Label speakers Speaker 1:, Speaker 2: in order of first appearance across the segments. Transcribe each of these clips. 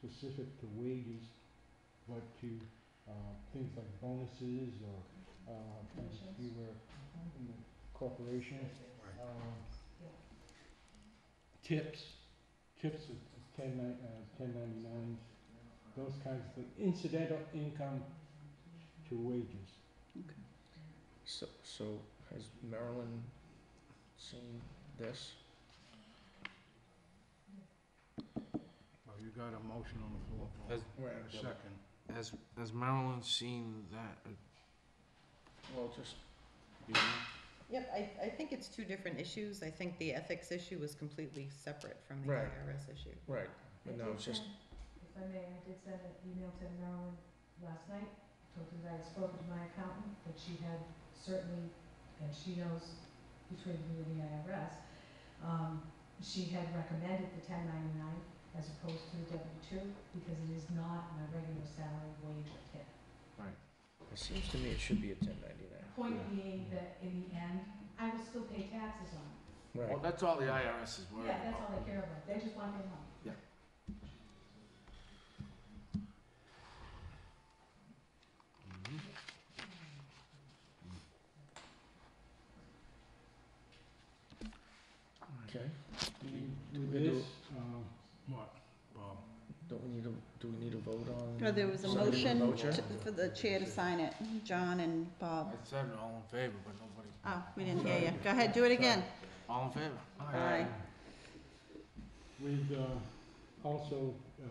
Speaker 1: specific to wages, but to, uh, things like bonuses or, uh, things if you were in the corporation,
Speaker 2: Right.
Speaker 1: um, tips, tips at ten nine, uh, ten ninety-nine, those kinds of things, incidental income to wages.
Speaker 2: So, so has Marilyn seen this?
Speaker 1: Well, you got a motion on the floor, Paul.
Speaker 3: Has-
Speaker 1: And a second.
Speaker 3: Has, has Marilyn seen that?
Speaker 2: Well, just,
Speaker 4: Yep, I, I think it's two different issues. I think the ethics issue was completely separate from the
Speaker 2: Right.
Speaker 4: IRS issue.
Speaker 2: right, but no, it's just,
Speaker 5: If I may, I did send an email to Marilyn last night, told her that I spoke to my accountant, that she had certainly, and she knows between you and the IRS, um, she had recommended the ten ninety-nine as opposed to the W two, because it is not my regular salary wage or tip.
Speaker 2: it seems to me it should be a ten ninety-nine.
Speaker 5: Point being that in the end, I will still pay taxes on it.
Speaker 3: Well,
Speaker 2: Right,
Speaker 3: that's all the IRS is worried
Speaker 5: Yeah, that's
Speaker 3: about.
Speaker 5: all they care about, they just want their money.
Speaker 3: Mhm.
Speaker 2: okay,
Speaker 1: And
Speaker 2: Do
Speaker 1: with
Speaker 2: we do-
Speaker 1: this, um. What, Bob?
Speaker 2: don't we need to, do we need to vote on?
Speaker 6: No, Oh, there was a
Speaker 2: somebody with
Speaker 6: motion
Speaker 2: voucher?
Speaker 6: to- for the chair to sign it, John and Bob.
Speaker 3: I said all in favor, but nobody,
Speaker 4: Uh,
Speaker 6: Oh, we didn't hear you. Go ahead, do it again.
Speaker 3: all in favor?
Speaker 6: Aye.
Speaker 1: With, uh, also, uh,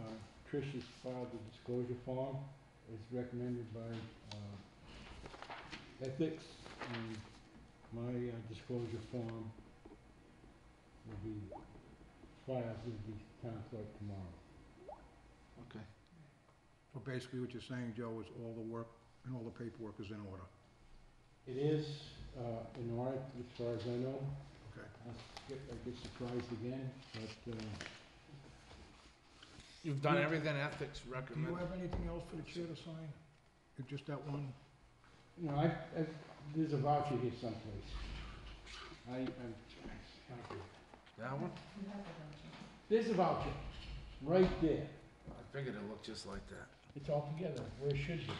Speaker 1: Trish has filed the disclosure form, it's recommended by, uh, ethics, and my uh, disclosure form will be filed with the town clerk tomorrow.
Speaker 3: Okay.
Speaker 1: So basically what you're saying, Joe, is all the work and all the paperwork is in order? It is, uh, in order, as far as I know. Okay. I get, I get surprised again, but, uh,
Speaker 3: You've done everything ethics recommended.
Speaker 1: anything else for the chair to sign? Just that one? No, I, I, there's a voucher here someplace. I, I'm,
Speaker 3: That
Speaker 5: You have that, don't
Speaker 3: one?
Speaker 5: you?
Speaker 1: there's a voucher, right there.
Speaker 3: I figured it looked just like that.
Speaker 1: It's all together, where it should be.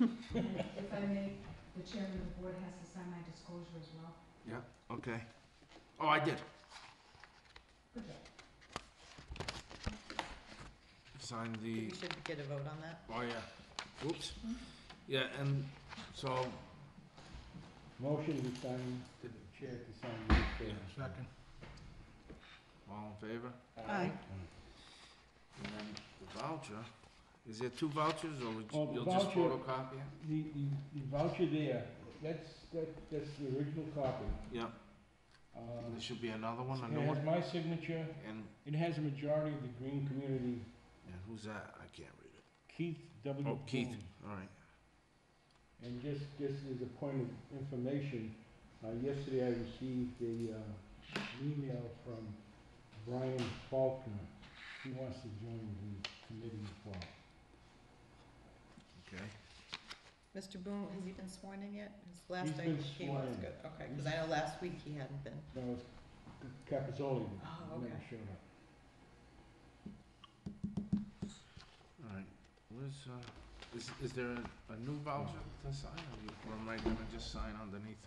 Speaker 5: And and if I may, the chairman of the board has to sign my disclosure as well.
Speaker 3: Okay. Oh, I did.
Speaker 5: Good job.
Speaker 3: Signed
Speaker 4: We
Speaker 3: the,
Speaker 4: should get a vote on that.
Speaker 3: oh yeah, oops. Yeah, and so,
Speaker 1: Motion to sign, to the chair to sign the chair.
Speaker 2: Second.
Speaker 3: all in favor?
Speaker 6: Aye.
Speaker 3: And then the voucher, is there two vouchers or would
Speaker 1: Oh,
Speaker 3: you-
Speaker 1: the
Speaker 3: you'll just
Speaker 1: voucher-
Speaker 3: photocopy it?
Speaker 1: The, the, the voucher there, that's, that, that's the original copy.
Speaker 3: Yeah,
Speaker 1: Uh,
Speaker 3: there should be another one, a new
Speaker 1: It has
Speaker 3: one,
Speaker 1: my signature,
Speaker 3: and,
Speaker 1: it has a majority of the green community,
Speaker 3: and who's that? I can't read it.
Speaker 1: Keith W.
Speaker 3: Oh, Keith,
Speaker 1: Boone.
Speaker 3: all right.
Speaker 1: And just, just as a point of information, uh, yesterday I received a, uh, email from Brian Faulkner. He wants to join the committee as well.
Speaker 3: Okay.
Speaker 4: Mr. Boone, has he been sworn in yet? His last
Speaker 1: He's
Speaker 4: I,
Speaker 1: been
Speaker 4: he was
Speaker 1: sworn in.
Speaker 4: good, okay, because I know last week he hadn't been.
Speaker 1: That was Capizoli,
Speaker 4: Oh,
Speaker 1: who never
Speaker 4: okay.
Speaker 1: showed up.
Speaker 3: Alright, where's, uh, is, is there a, a new voucher to sign, or you- or am I gonna just sign underneath?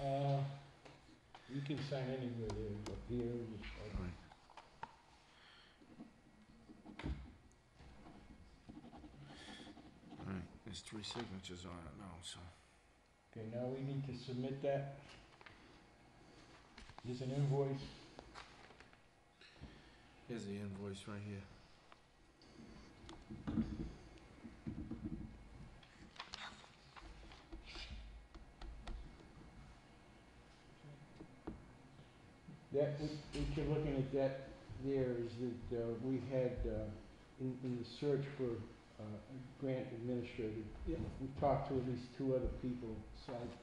Speaker 1: Uh, you can sign anywhere there, up here, or-
Speaker 3: Alright. Alright, there's three signatures on it now, so,
Speaker 1: Okay, now we need to submit that. There's an invoice,
Speaker 3: here's the invoice right here.
Speaker 1: that, what what you're looking at that there is that, uh, we had, uh, in, in the search for, uh, a grant administrator,
Speaker 3: Yeah.
Speaker 1: we talked to at least two other people, besides,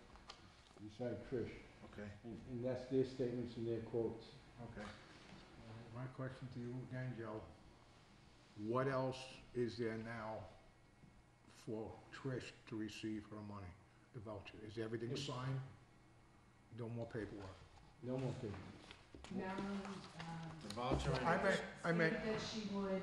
Speaker 1: beside Trish,
Speaker 3: Okay.
Speaker 1: and, and that's their statements and their quotes.
Speaker 2: Okay.
Speaker 1: My question to you again, Joe, what else is there now for Trish to receive her money, the voucher? Is everything signed? No more paperwork? No more paperwork.
Speaker 5: Marilyn, um,
Speaker 3: The voucher and.
Speaker 2: I may-
Speaker 5: stated that she would